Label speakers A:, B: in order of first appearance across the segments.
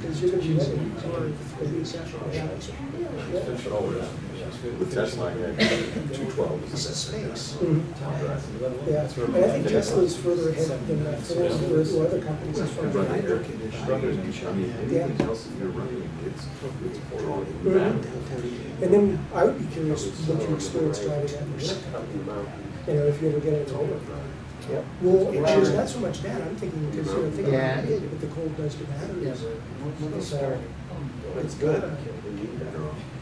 A: Mm-hmm.
B: Extension over there. With Tesla, I got two twelve.
C: It's a space.
A: Yeah, and I think Tesla's further ahead than uh, Ford or other companies as far as.
B: Right
A: I know.
B: here, struthers and shit. I mean, anything else that you're running, it's, it's all over
D: Mm-hmm.
B: the
A: Mhm.
B: back.
A: And then I would be curious what your experience driving that was,
B: Up in the mountain.
A: you know, if you ever get it over.
E: Yep.
A: Well, actually, not so much that, I'm thinking, because you're thinking
E: Yeah.
A: about it, but the cold does to batteries. uh,
E: So,
C: It's good.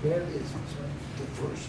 A: Yeah,
C: It's the first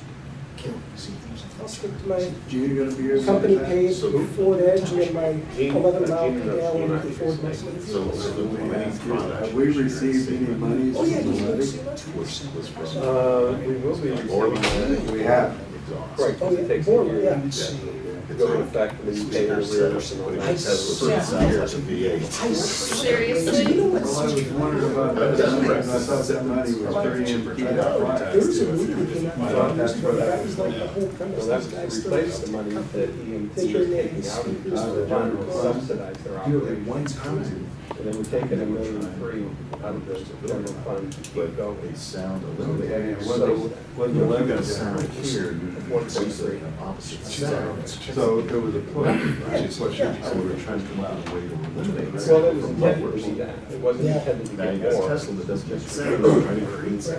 C: kill. See, there's a-
A: I'll stick to my
E: Gene, you gonna be here?
A: company paid Ford Edge and my eleven mile per gallon Ford
D: uh,
B: So, so
A: Mustang.
B: the winning product.
E: Have we received any money?
A: Oh, yeah, he's
E: from
A: going
E: the
A: to
E: levy?
A: see much.
B: Was, was from.
D: Uh, we will be
B: Orland.
D: receiving,
E: We have.
B: Exhaust.
D: right,
A: Oh,
D: because it
A: yeah,
D: takes a
A: Borla,
D: year
A: yeah.
B: Exactly.
D: to go in effect, and then you pay your arrears and all
B: But it
D: that.
B: has a years of V eight.
A: I-
F: Seriously?
A: You know what's
E: Well, I
A: such
E: was
A: a-
E: wondering about that, because I thought that money was
A: There
E: very
A: was a
E: important.
A: movie that came out five years ago, but that was like the whole premise,
D: So
A: these
D: that's
A: guys
D: to
A: still.
D: replace the money that EMT is taking out of the fund to subsidize their operation.
E: time.
D: And then we're taking a million three out of the general fund to keep
B: But
D: going.
B: they sound a little bit.
E: And what
D: So
E: they-
D: when the
E: you
D: levy
E: gotta
D: is
E: sound here, you-
D: one point three,
B: Opposite sounds.
E: So there was a push, which is what you're,
B: So we're trying to come out of a way to eliminate. that
D: well, it was
B: from
D: intended
B: lowers.
D: to be that, it wasn't
A: Yeah.
D: intended to
B: Now you
D: be
B: got
D: more.
B: Tesla that doesn't make sense.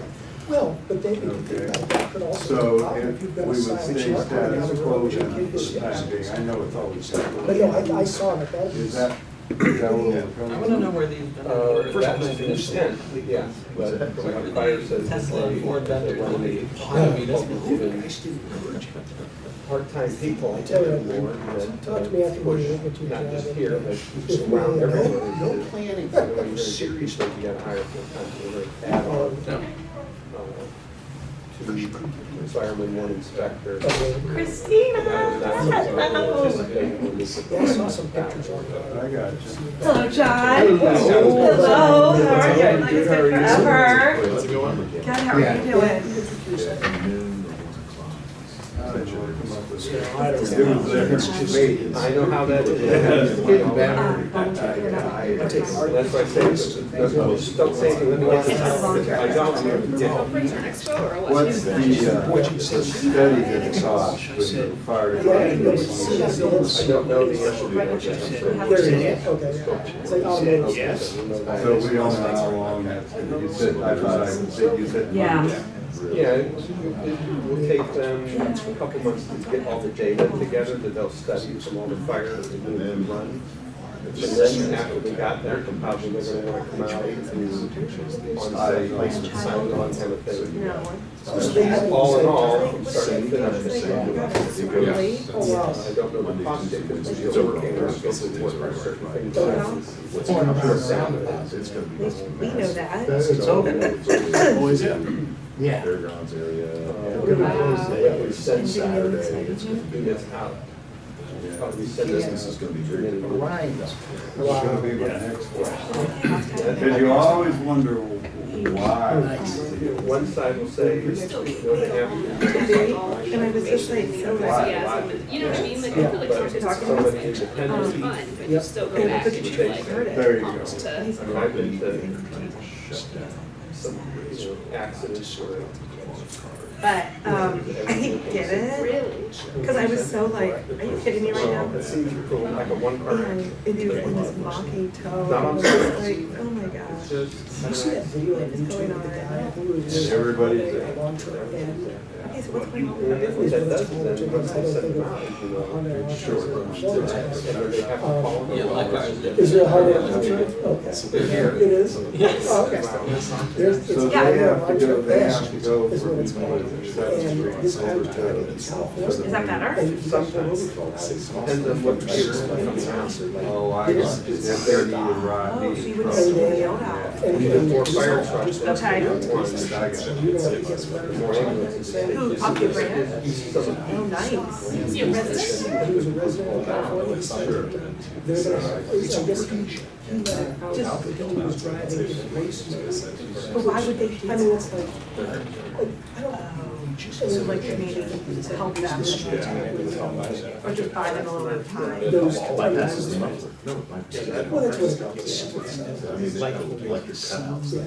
A: Well, but they, if you think
E: Okay.
A: about that, could also. be a
E: so
A: problem
E: if
A: if you've
E: we
A: got a
E: would
A: silent
E: stay
A: truck on the
E: status
A: other
E: quo
A: road that
E: then
A: you
E: for
A: get
E: the time
A: hit.
E: being, I know it's always. that
A: But
E: way.
A: no, I, I saw it, that
E: Is
A: was,
E: that, is that what we're
G: I
E: coming
G: wanna know
E: to?
G: where these
D: Uh,
G: vendors
D: that was the intent, yeah, but like Fire says.
G: Tesla and Ford vendors
D: when they-
G: are
D: Even part-time people, I tell you more, that.
A: Talk to me after we look at your
D: Not
A: job.
D: just here, but
A: Just
D: around
A: no-
D: everywhere.
C: No planning
D: So
C: for
D: when you're
C: those serious
D: seriously, you gotta hire full-time, you add on,
A: um,
D: uh, to fireman, one inspector.
F: Christina,
A: yeah, I saw some pictures on it.
E: I got you.
F: Hello, John.
D: Hello.
F: Hello, how are you?
D: Hello.
F: Like it's been forever.
B: What's it going?
F: Good, how are you doing?
B: Noon or one
D: Uh,
E: I
B: o'clock.
E: don't know, I come up with that.
C: I
E: It
C: don't
E: was
C: know.
E: there.
D: I know how that is.
E: It's getting better.
F: Um, volunteer.
E: I take
D: Well, That's why I say, it's- there's no- don't say anything, let me like, I don't, I'm gonna- yeah.
E: What's the, uh, the study that cost with the fire
A: Yeah, I didn't know what
E: department?
D: I
A: CSLs.
D: don't know the answer to that question.
A: There it is, okay, yeah. it's like automated.
D: Yes.
E: So we don't know how long that's, gonna- you said, I thought I would say, you said.
F: Yeah.
D: Yeah, it will take them a couple months to get all the data together that they'll study from all the fires that have been run. And then after we got there, probably they're gonna wanna come out and do on-site placement, sign on kind of thing. All in all, from start to finish,
A: Oh, wow.
D: I don't know the cost data, but
B: It's
D: still
B: over.
D: working, we're supposed to work on certain things.
F: Oh, no.
B: What's the computer sound of that? It's gonna be.
F: We know that.
E: It's over.
B: Oh, is it? Oh,
E: Yeah.
B: Fairgrounds area.
D: Yeah, we send
B: Saturday, it's gonna
D: do
B: be.
D: this out.
B: Yeah.
D: Probably send
B: This
D: this.
B: is gonna be very.
C: Right.
E: It's gonna be my next question. Cause you always wonder why.
D: One side will say, you know, they have.
F: And I was just like, so
E: Why?
H: You know what I mean? Like,
A: Yeah.
H: I feel like
D: But
H: sometimes it's
D: somebody independently,
H: um, fun, but you
A: Yep.
H: still go
F: And
H: back
F: look
H: and
F: at
H: you're
F: you,
H: like,
F: heard it.
E: There you go.
H: to.
F: He's
D: I
F: like,
D: mean, I've been to some, you know, accidents where.
F: But, um, I get it, cause I was so like, are you kidding me right now?
D: It seems you're cool, like a one car.
F: And
D: accident.
F: it was in this mocking tone,
D: Not
F: I
D: on
F: was
D: purpose.
F: like, oh my
D: It's
F: gosh.
D: just.
A: You see that video on YouTube of the guy who was.
E: And everybody's there.
A: Long term, and
F: He's, what's going on?
D: And if that does, it, then once they send them out, you know,
A: Honda launches
E: Sure.
A: a
D: and
A: Honda test.
D: they have to follow. the
G: Yeah, like ours
D: laws.
G: did.
A: Is there a Honda contract? Okay. It is? Oh, okay. There's,
E: So
A: it's
E: they
A: got
E: have to go,
A: Honda
E: they have
A: Bash
E: to go
A: is
E: from
A: what it's called.
E: one of their
A: And
E: substrates
A: this
E: over
A: contract
E: to
A: in South Florida.
F: Is that better?
A: And
D: Sometimes, depends on what year it's coming out.
E: Oh, I got you. If they're needed rod,
F: Oh, so you
E: needed truck.
F: wouldn't see the yelled out.
A: And-
D: Even
A: and-
D: more fire trucks.
F: Okay.
E: I got you.
A: You know, it gets better.
D: More ambulances.
F: Who, Poppy Brand? Oh,
D: Some-
F: nice.
H: Is he a resident?
A: He was a resident of California. He said that They're gonna, I guess he, he let it out
F: Just-
A: that he was driving in races.
F: But why would they do
A: I mean,
F: that?
A: it's like, I don't.
F: oh, So like maybe help them or just buy them a little bit of time.
A: Those.
B: No, my.
A: Well, that's what it's called.
B: I mean, like, like your cutouts.
A: Yeah.